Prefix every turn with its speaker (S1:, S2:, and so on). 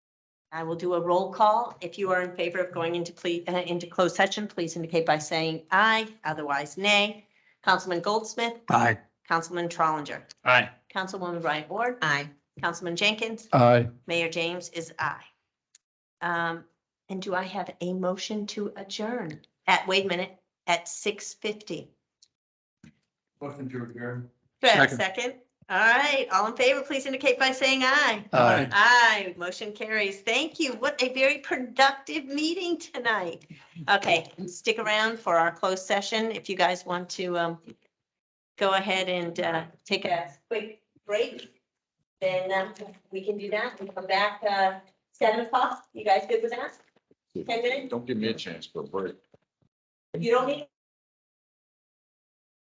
S1: I will do a roll call. If you are in favor of going into cle- uh, into closed session, please indicate by saying aye, otherwise nay. Councilman Goldsmith,
S2: Aye.
S1: Councilman Trolinger,
S3: Aye.
S1: Councilwoman Bryant Ward. Aye. Councilman Jenkins,
S2: Aye.
S1: Mayor James is aye. Um, and do I have a motion to adjourn at, wait a minute, at six fifty?
S3: Motion to adjourn.
S1: Do I have a
S2: Second.
S1: second? All right, all in favor, please indicate by saying aye.
S2: Aye.
S1: Aye, motion carries. Thank you. What a very productive meeting tonight. Okay, stick around for our closed session if you guys want to um go ahead and uh take a quick break. Then uh, we can do that and come back uh seven o'clock. You guys good with that? Ten minutes?
S4: Don't give me a chance for a break.
S1: You don't need